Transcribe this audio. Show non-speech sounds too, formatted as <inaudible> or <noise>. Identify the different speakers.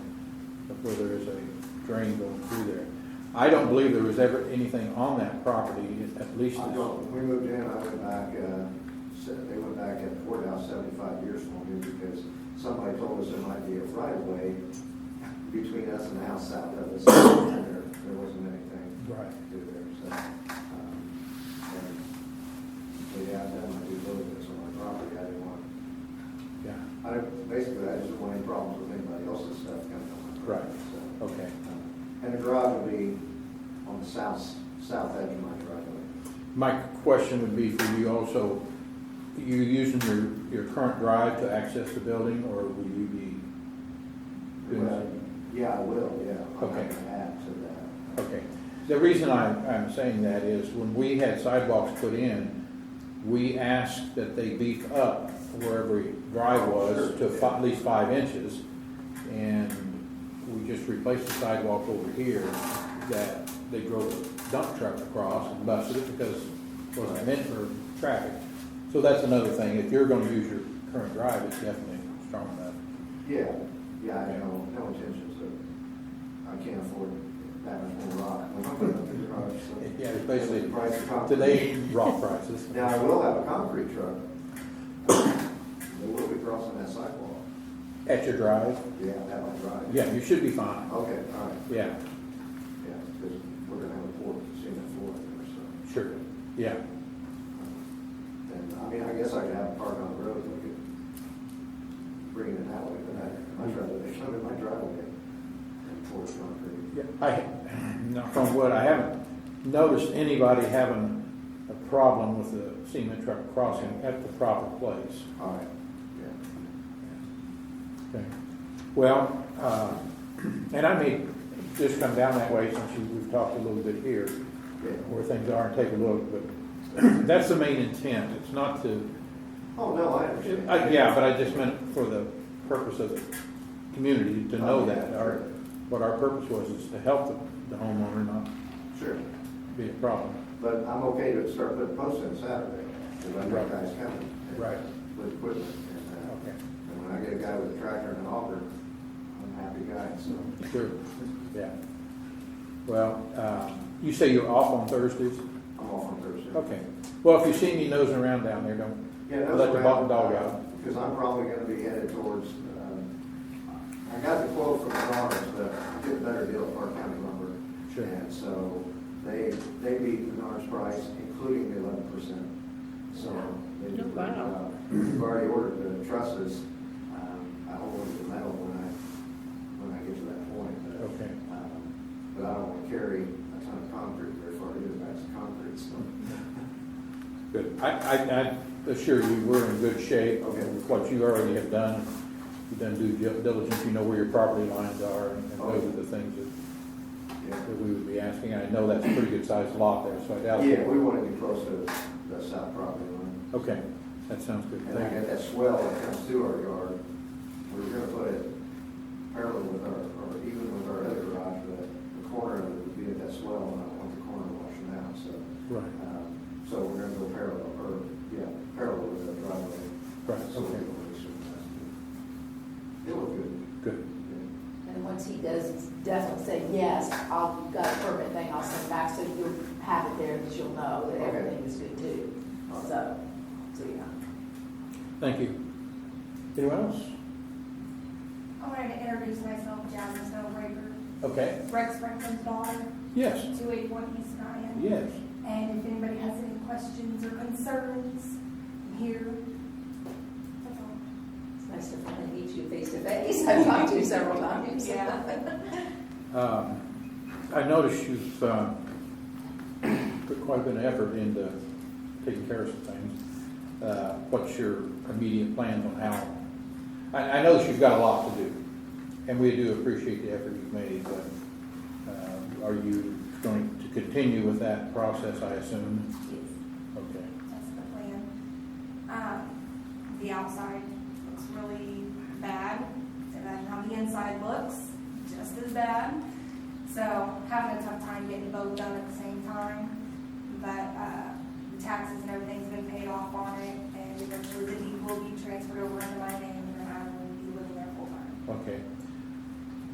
Speaker 1: where there is a drain going through there. I don't believe there was ever anything on that property, at least.
Speaker 2: I don't, we moved in, I went back, uh, se- they went back at four now, seventy-five years from here, because somebody told us there might be a right of way between us and the house south of us, and there, there wasn't anything
Speaker 1: Right.
Speaker 2: to do there, so. um, and They had done, I do little bits on my property, I didn't want,
Speaker 1: Yeah,
Speaker 2: I, don't- basically, I just didn't want any problems with anybody else's stuff coming on my property, so.
Speaker 1: okay.
Speaker 2: um, And the garage would be on the south, south edge of my driveway.
Speaker 1: My question would be for you also, you using your, your current drive to access the building, or will you be? doing
Speaker 2: Well,
Speaker 1: that?
Speaker 2: Yeah, I will, yeah. I'll
Speaker 1: Okay.
Speaker 2: have to Add to that.
Speaker 1: Okay, the reason I'm, I'm saying that is when we had sidewalks put in, we asked that they beef up where every drive was to fi- at least five inches. And we just replaced the sidewalk over here that they drove a dump truck across and busted it because it wasn't meant for traffic. So that's another thing, if you're gonna use your current drive, it's definitely strong enough.
Speaker 2: Yeah, yeah, I know, no intentions of, I can't afford that much more rock. I'm not gonna have the garage, so-
Speaker 1: Yeah, it's <laughs> basically,
Speaker 2: The price of concrete.
Speaker 1: today, rock prices.
Speaker 2: Now, I will have a concrete truck. They will be crossing that sidewalk.
Speaker 1: At your drive?
Speaker 2: Yeah, that might drive.
Speaker 1: Yeah, you should be fine.
Speaker 2: Okay, all right,
Speaker 1: Yeah,
Speaker 2: yeah, because we're gonna have a port, cement floor there, so.
Speaker 1: sure. Yeah,
Speaker 2: And, I mean, I guess I could have a park on the road, I could bring it that way, but I, I'd rather they come in my driveway and pour concrete.
Speaker 1: I, knock on wood, I haven't noticed anybody having a problem with the cement truck crossing at the proper place.
Speaker 2: All right, yeah.
Speaker 1: Okay. Well, uh, and I may just come down that way since you- we've talked a little bit here,
Speaker 2: Yeah.
Speaker 1: where things are, and take a look, but <clears throat> that's the main intent. It's not to,
Speaker 2: Oh, no, I
Speaker 1: it-
Speaker 2: understand.
Speaker 1: I- Uh, yeah, but I just meant for the purpose of the community to know that. Our, what our purpose was is to help the- the homeowner, not
Speaker 2: Sure,
Speaker 1: be a problem.
Speaker 2: but I'm okay to start putting posts in Saturday, if I know
Speaker 1: Right.
Speaker 2: guys coming. and-
Speaker 1: Right.
Speaker 2: With equipment, and,
Speaker 1: Okay.
Speaker 2: uh, and when I get a guy with a tractor and a auger, I'm a happy guy, so.
Speaker 1: Sure, yeah. Well, uh, you say you're off on Thursdays?
Speaker 2: I'm off on Thursday.
Speaker 1: Okay. Well, if you see me nosing around down there, don't,
Speaker 2: Yeah, that's
Speaker 1: let the
Speaker 2: around-
Speaker 1: bottom dog out.
Speaker 2: Because I'm probably gonna be headed towards, um, I got the quote from the Lawrence, but I get a better deal at Park County Lumber.
Speaker 1: Sure.
Speaker 2: And so they, they beat the Lawrence price, including the eleven percent, so they did a good
Speaker 3: Wow.
Speaker 2: job. We've already ordered the trusses, um, I'll order the metal when I, when I get to that point, but.
Speaker 1: Okay.
Speaker 2: um, But I don't wanna carry a ton of concrete very far either, that's concrete, so.
Speaker 1: good. I, I, I assure you, we're in good shape.
Speaker 2: Okay.
Speaker 1: with What you already have done, you've done due diligence, you know where your property lines are, and and those are the things that,
Speaker 2: Yeah.
Speaker 1: that we would be asking. I know that's a pretty good sized lot there, so I doubt.
Speaker 2: Yeah, we want to be close to the south property line.
Speaker 1: Okay, that sounds good.
Speaker 2: And I
Speaker 1: Thank you.
Speaker 2: got that swell that comes through our yard. We We're gonna put it parallel with our, or even with our other garage, but the corner of it would be at that swell, and I don't want the corner washing out, so.
Speaker 1: Right,
Speaker 2: um, So we're gonna go parallel, or, yeah, parallel with the driveway.
Speaker 1: Right,
Speaker 2: So we'll
Speaker 1: okay.
Speaker 2: get away from that. It looked good.
Speaker 1: good.
Speaker 2: yeah.
Speaker 4: And once he does definitely say, yes, I've got a permit thing, I'll send back, so you'll have it there, because you'll know
Speaker 2: Okay.
Speaker 4: that everything is good too.
Speaker 2: All right.
Speaker 4: So, so, yeah.
Speaker 1: Thank you. Anyone else?
Speaker 5: I wanted to introduce myself, Jasmine Snowbreaker,
Speaker 1: Okay,
Speaker 5: Rex Franklin's daughter,
Speaker 1: yes,
Speaker 5: two eight one East Nyan.
Speaker 1: yes.
Speaker 5: And if anybody has any questions or concerns, I'm here. That's all.
Speaker 4: It's nice to finally meet you face to face. <laughs> I've talked to you several times.
Speaker 5: Yeah.
Speaker 1: Um, I noticed you've um, put quite an effort into taking care of some things. Uh, What's your immediate plans on how? I, I know that you've got a lot to do, and we do appreciate the effort you've made, but um, are you going to continue with that process, I assume? Okay,
Speaker 5: That's the plan. Um, the outside looks really bad, and then how the inside looks, just as bad. So having a tough time getting both done at the same time, but, uh, the taxes and everything's been paid off on it, and eventually the deed will be transferred over into my name, and then I will be living there full time.
Speaker 1: okay.